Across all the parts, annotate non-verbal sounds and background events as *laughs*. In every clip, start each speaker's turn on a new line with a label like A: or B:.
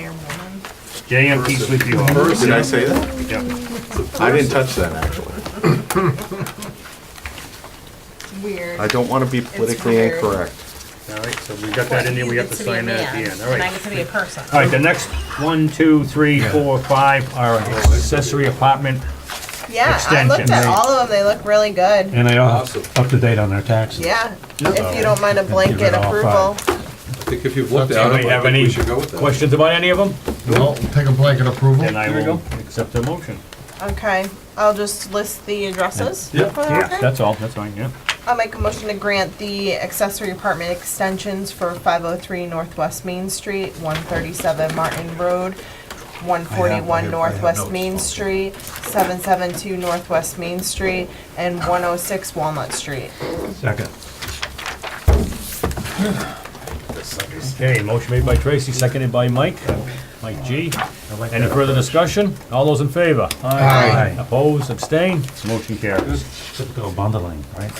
A: chairwoman.
B: JMP's with you all.
C: Did I say that?
B: Yep.
C: I didn't touch that, actually.
A: Weird.
C: I don't want to be politically
A: weird.
C: incorrect.
B: All right, so we got that in there, we have to sign that at the end, all
A: And I
B: right.
A: get to be a person.
B: All right, the next one, two, three, four, five are accessory apartment,
D: Yeah, I looked at
B: Extension.
D: all of them, they look really good.
E: And they all have up to date on their taxes.
D: Yeah, if you don't mind a
E: Give
D: blanket
E: it all
D: approval.
F: I think if you've looked at
B: Anybody
F: it, I
B: have
F: think
B: any
F: we should go with that.
B: Questions about any of them?
G: Well, take a blanket approval.
B: Then I
G: There we
B: will
G: go.
B: accept the motion.
D: Okay, I'll just list the addresses.
F: Yeah.
D: for that,
B: Yeah,
D: okay?
B: that's all, that's fine, yeah.
D: I'll make a motion to grant the accessory apartment extensions for five oh three Northwest Main Street, one thirty-seven Martin Road, one forty-one Northwest Main Street, seven seven two Northwest Main Street, and one oh six Walnut Street.
E: Second.
B: Okay, motion made by Tracy, seconded by Mike, Mike G. Any further discussion? All those in favor?
G: Aye.
B: Opposed, abstained? Motion carries.
E: Typical bundling, right?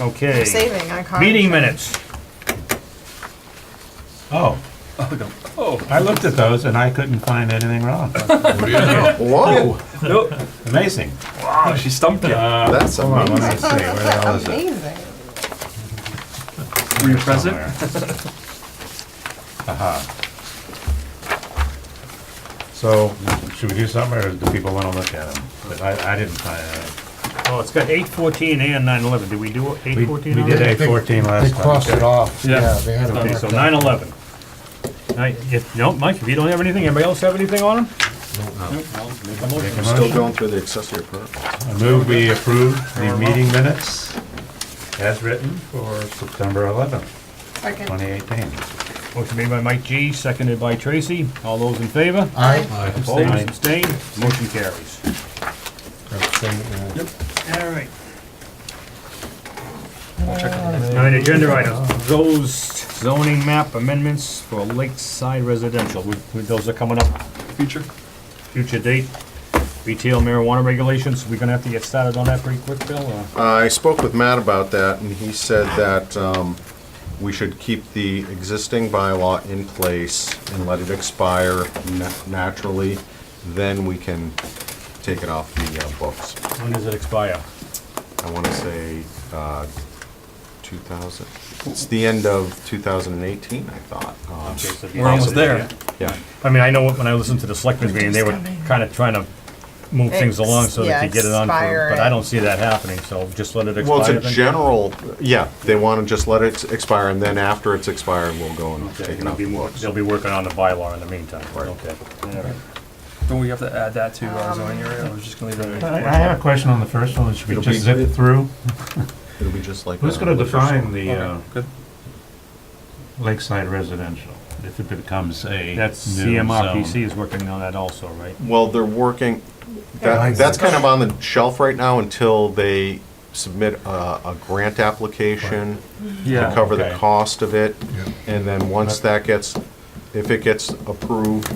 B: Okay,
D: Saving, I can't.
B: meeting minutes.
E: Oh. I looked at those and I couldn't find anything wrong.
F: What do you know?
C: Whoa,
E: Amazing.
F: Oh, She stumped you.
C: that's
E: Hold on,
C: amazing.
E: let me see,
D: *laughs*
E: where the hell is it?
D: Amazing.
F: Were you present?
E: So, should we do something or do people wanna look at them? But I, I didn't find it.
B: Oh, it's got eight fourteen and nine eleven. Did we do
E: We,
B: eight fourteen?
E: we did eight fourteen
G: They
E: last
G: crossed
E: time.
G: it off.
F: Yeah.
G: Yeah, they had it
B: Okay, so
G: marked
B: nine
G: up.
B: eleven. Alright, if, no, Mike, if you don't have anything, anybody else have anything on them? Make a motion.
E: Come
C: Still
E: on.
C: going through the accessory apartment.
E: I move we approve the meeting minutes as written for September eleventh,
D: Second.
E: twenty eighteen.
B: Motion made by Mike G, seconded by Tracy. All those in favor?
G: Aye.
B: Opposed, abstained, motion carries. Alright. Nine agenda items, those zoning map amendments for lakeside residential, We- we- those are coming up,
F: Feature?
B: future date. Retail marijuana regulations, we are gonna have to get started on that pretty quick, Bill, or?
C: Uh, I spoke with Matt about that, and he said that um, we should keep the existing bylaw in place and let it expire na- naturally, then we can take it off the uh, books.
B: When does it expire?
C: I want to say uh, 2000, it's the end of 2018, I thought. Um,
B: We're
F: almost there.
C: Yeah,
B: I mean, I know when I listened to the selectmen's meeting, they were kinda trying to move things along so they
D: Ex- yeah,
B: could get it on, for-
D: expire
B: but
D: it.
B: I don't see that happening, so just let it expire.
C: well, it's a
B: then?
C: general, yeah, they want to just let it expire, and then after it's expired, we'll go and
B: Okay,
C: take it
B: they'll
C: off
B: be,
C: the
B: wor-
C: books.
B: they'll be working on the bylaw in the meantime,
C: Right.
B: okay.
F: Don't we have to add that to our zoning area? I was just gonna leave
E: I, I have a question on the first one, should we
C: It'll
E: just
C: be-
E: zip it through?
C: It'll be just like.
E: Who's
C: uh,
E: gonna
C: liquor store.
E: define the uh,
F: good.
E: lakeside residential, if it becomes a
B: That's
E: new
B: CMRPC
E: zone?
B: is working on that also, right?
C: Well, they're working, that, that's kind of on the shelf right now until they submit a, a grant application to cover the
E: okay.
C: cost of it.
G: Yeah.
C: And then once that gets, if it gets approved,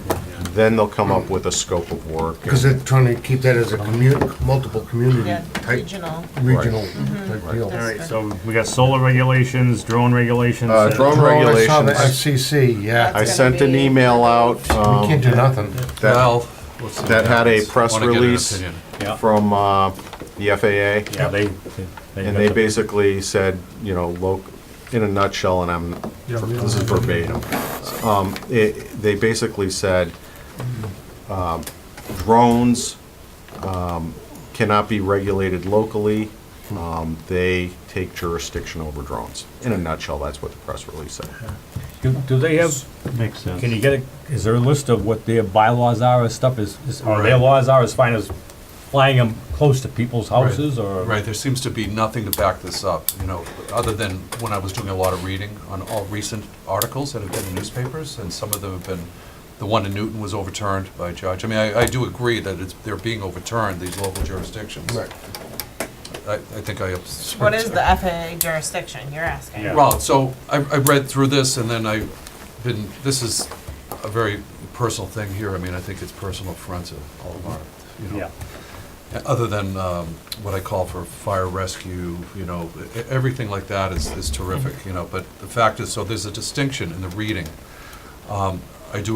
C: then they'll come up with a scope of work.
G: Because they're trying to keep that as a commu, multiple community
D: Yeah,
G: type,
D: regional. Mm-hmm.
G: regional type deal.
B: All right, so we got solar regulations, drone regulations.
C: Uh, drone
G: Well, I saw the
C: regulations,
G: FCC, yeah.
C: I sent an email out,
G: We
C: um,
G: can't do nothing.
C: that,
F: Well. let's see what
C: that had a
F: happens.
C: press
F: Wanna get an
C: release.
F: opinion.
B: Yeah,
C: from, uh, the FAA.
B: yeah, they.
C: And they
B: got the-
C: basically said, you know, loc, in a nutshell, and I'm, this is verbatim. Um, it, they basically said, um, drones, um, cannot be regulated locally. Um, they take jurisdiction over drones. In a nutshell, that's what the press release said.
B: Do do they have,
E: Makes sense.
B: can you get, a? is there a list of what their bylaws are as stuff is, is- or their laws are as fine as flying them close to people's houses or?
F: Right, there seems to be nothing to back this up, you know, other than when I was doing a lot of reading on all recent articles that have been in newspapers, and some of them have been, the one in Newton was overturned by a judge. I mean, I, I do agree that it's, they're being overturned, these local jurisdictions.
G: Right.
F: I, I think I. ups-
D: What is the FAA jurisdiction, you're asking?
B: Yeah.
F: Well, so I, I read through this and then I've been, this is a very personal thing here. I mean, I think it's personal friends of all of our, you know.
B: Yeah,
F: Other than um, what I call for fire rescue, you know, e- everything like that is, is terrific, you know. But the fact is, so there's a distinction in the reading. Um, I do